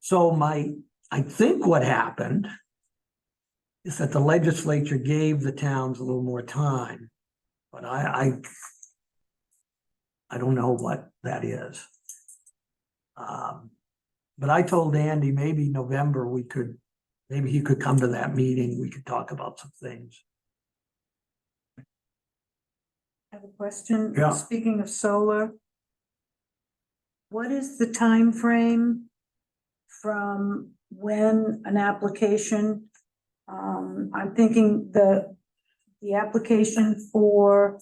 So my, I think what happened is that the legislature gave the towns a little more time, but I, I I don't know what that is. Um, but I told Andy maybe November we could, maybe he could come to that meeting, we could talk about some things. I have a question. Yeah. Speaking of solar. What is the time frame from when an application? Um, I'm thinking the, the application for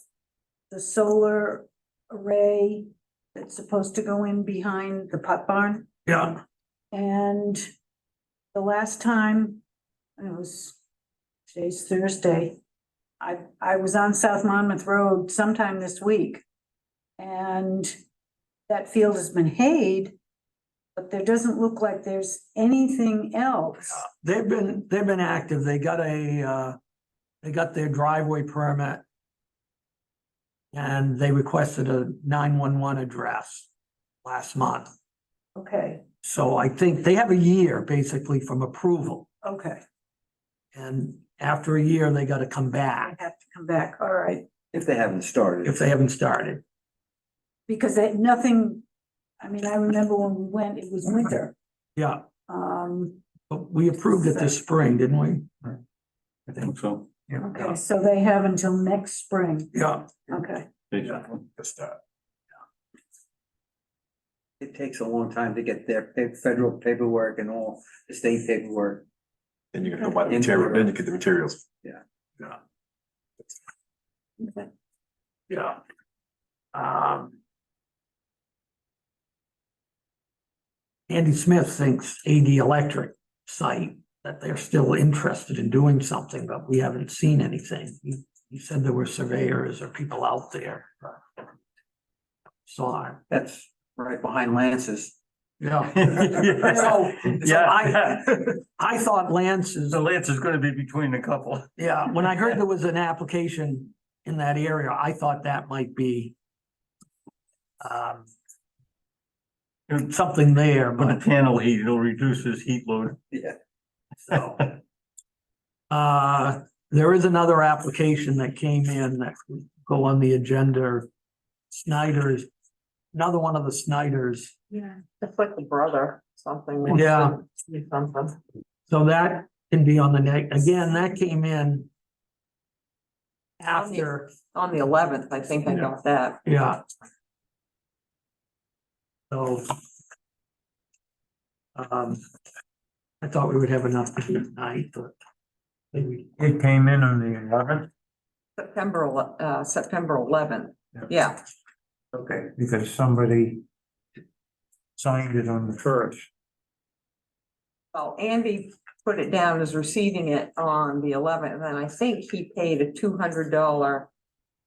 the solar array that's supposed to go in behind the pot barn. Yeah. And the last time, it was, today's Thursday, I, I was on South Monmouth Road sometime this week. And that field has been hayed, but there doesn't look like there's anything else. They've been, they've been active. They got a, uh, they got their driveway permit. And they requested a nine-one-one address last month. Okay, So I think they have a year basically from approval. okay, And after a year, they gotta come I back have to come back, all right, If they haven't started. if they haven't started. because they, nothing, I mean, I remember when we went, it was winter. Yeah, Um, but we approved it this spring, didn't we? I think so. okay, so they have until next spring, Yeah, okay, Basically. It takes a long time to get their pa- federal paperwork and all the state paperwork. Then you're gonna go buy the material, then you get the materials. okay. yeah. Um. Andy Smith thinks AD Electric site, that they're still interested in doing something, but we haven't seen anything. He, he said there were surveyors or people out there. but Saw it. That's right behind Lance's. Yeah. So, so I, I thought Lance's The Lance is gonna be between the couple. Yeah, when I heard there was an application in that area, I thought that might be um something there, But but the panel heat, it'll reduce his heat load. Yeah. so. Uh, there is another application that came in that could go on the agenda. Snyder's, another one of the Snyder's. Yeah. It's like the brother, something. Yeah. Be Something. So that can be on the next, again, that came in On the- after. On the eleventh, I think I got that. Yeah. So. Um, I thought we would have enough to do tonight, but. maybe- It came in on the eleventh, September, ele- uh, September eleventh. Yeah. Yeah, okay, because somebody signed it on the first. well, Andy put it down as receiving it on the eleventh, and I think he paid a two hundred dollar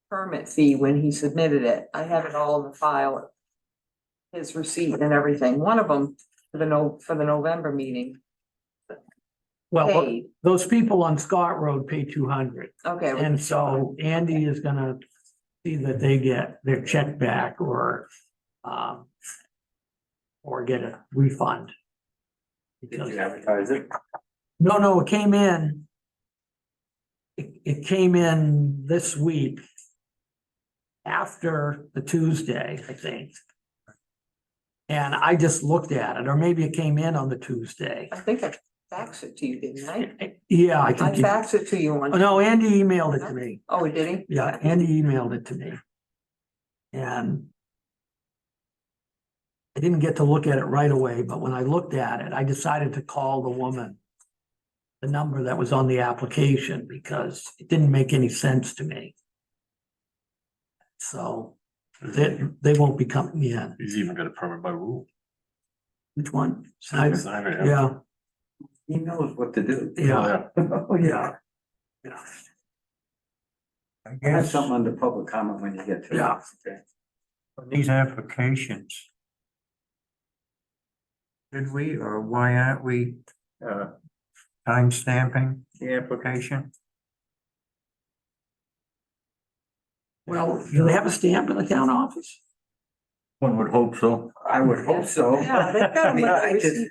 permit fee when he submitted it. I have it all in the file. His receipt and everything, one of them for the no, for the November meeting Well, paid. those people on Scott Road pay two hundred, Okay, well, and so Andy is gonna see that they get their check back or, um. Or get a refund. Because advertise it? No, no, it came in. It, it came in this week. After the Tuesday, I think. And I just looked at it, or maybe it came in on the Tuesday. I think I faxed it to you, didn't I? Yeah, I I think. you- faxed it to you Oh, on, No, Andy emailed it to me. oh, did he? Yeah, Andy emailed it to me. And. I didn't get to look at it right away, but when I looked at it, I decided to call the woman. The number that was on the application because it didn't make any sense to me. So they, they won't be coming in. He's even got a permit by rule. Which one? It's Snyder? not even- Yeah, He knows what to do. yeah, Yeah. Oh, yeah, I I have guess something under public comment when you get to it. Yeah. Okay. on these applications. Did we, or why aren't we, uh, timestamping the application? Well, do they have a stamp in the town office? One would hope so. I would hope so. Yeah, they've got I mean, them, but I they just-